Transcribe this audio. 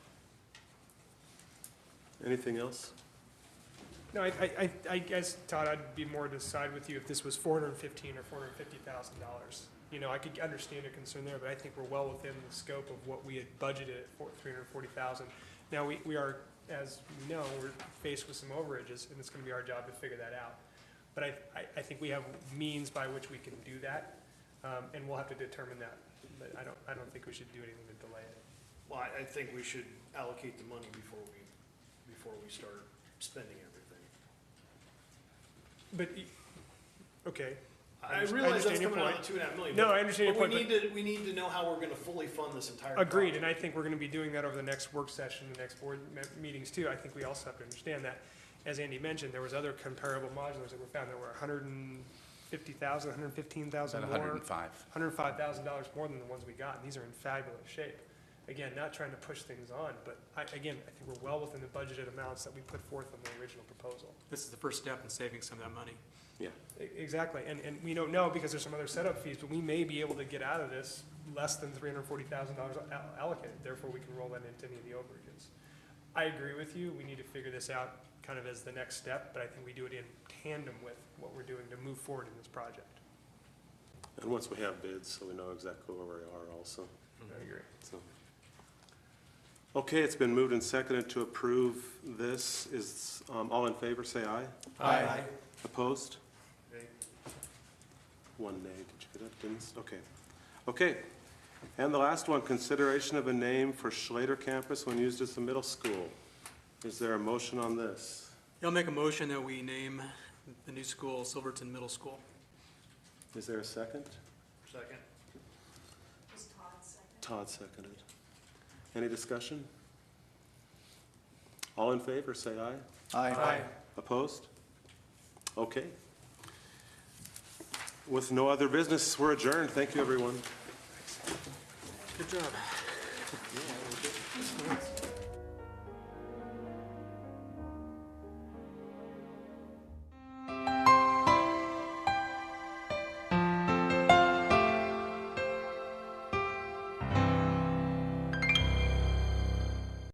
Anything else? No, I, I, I- I guess, Todd, I'd be more to side with you if this was four hundred and fifteen or four hundred and fifty thousand dollars. You know, I could understand your concern there, but I think we're well within the scope of what we had budgeted at four, three hundred and forty thousand. Now, we, we are, as we know, we're faced with some overages, and it's gonna be our job to figure that out. But I, I, I think we have means by which we can do that, um, and we'll have to determine that. But I don't, I don't think we should do anything to delay it. Well, I, I think we should allocate the money before we, before we start spending everything. But, y- okay, I I understand realize that's your coming out point. of two and a half million. No, but- I understand your But we point, need to, we need to know how we're gonna fully fund this entire project. Agreed, and I think we're gonna be doing that over the next work session, the next board me- meetings too. I think we also have to understand that, as Andy mentioned, there was other comparable modulars that were found that were hundred and fifty thousand, hundred and fifteen thousand About more, 105. hundred and five thousand dollars more than the ones we got, and these are in fabulous shape. Again, not trying to push things on, but I, again, I think we're well within the budgeted amounts that we put forth on the original proposal. This is the first step in saving some of that money. E- Exactly, and, and we don't know because there's some other setup fees, but we may be able to get out of this less than three hundred and forty thousand dollars allocated, therefore we can roll that into any of the overages. I agree with you, we need to figure this out kind of as the next step, but I think we do it in tandem with what we're doing to move forward in this project. And once we have bids, so we know exactly where we are also, I agree. so. Okay, it's been moved and seconded to approve this. Is, um, all in favor, say aye. Aye. Opposed? Okay? One nay, did you get it? Didn't, s- okay. Okay. And the last one, consideration of a name for Schlater Campus when used as a middle school. Is there a motion on this? I'll make a motion that we name the new school Silverton Middle School. Is there a second? Second. Todd seconded. Any discussion? All in favor, say aye. Aye. Opposed? Okay. With no other business, we're adjourned. Thank you, everyone. Good job.